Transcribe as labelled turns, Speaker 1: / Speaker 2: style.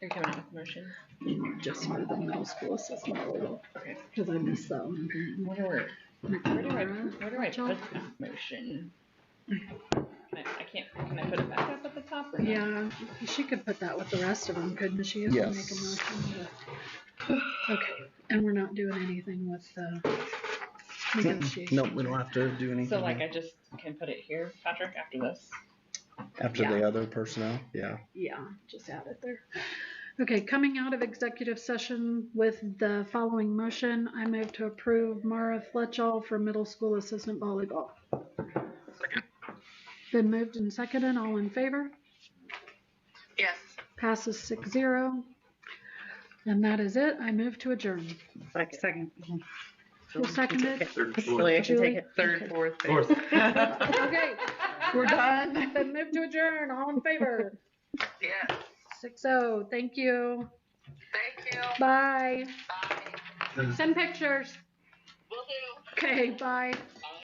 Speaker 1: You're coming up with a motion?
Speaker 2: just for the middle school assessment portal,
Speaker 1: Okay.
Speaker 2: because I missed that one.
Speaker 1: Where do I, where do I,
Speaker 2: Mm-hmm.
Speaker 1: where do I put this motion? I I can't, can I put it back up at the top or not?
Speaker 2: Yeah, she could put that with the rest of them, couldn't she? if we
Speaker 3: Yes.
Speaker 2: make a motion to- Okay, and we're not doing anything with the negotiation.
Speaker 3: No, we don't have to do anything
Speaker 1: So like I just can put it here, Patrick, after this?
Speaker 3: after
Speaker 2: yeah.
Speaker 3: the other personnel. Yeah.
Speaker 2: Yeah, just add it there. Okay, coming out of executive session with the following motion, I move to approve Mara Fletchall for middle school assistant volleyball. Been moved and seconded, all in favor?
Speaker 4: Yes.
Speaker 2: Passes six zero. And that is it, I move to adjourn.
Speaker 5: Second.
Speaker 2: Who seconded?
Speaker 5: Really, I should take it. Third, fourth. Fourth.
Speaker 2: Okay, we're done, then move to adjourn, all in favor?
Speaker 4: Yes.
Speaker 2: Six oh, thank you,
Speaker 4: Thank you.
Speaker 2: bye.
Speaker 4: Bye.
Speaker 2: Send pictures,
Speaker 4: Will do.
Speaker 2: okay, bye.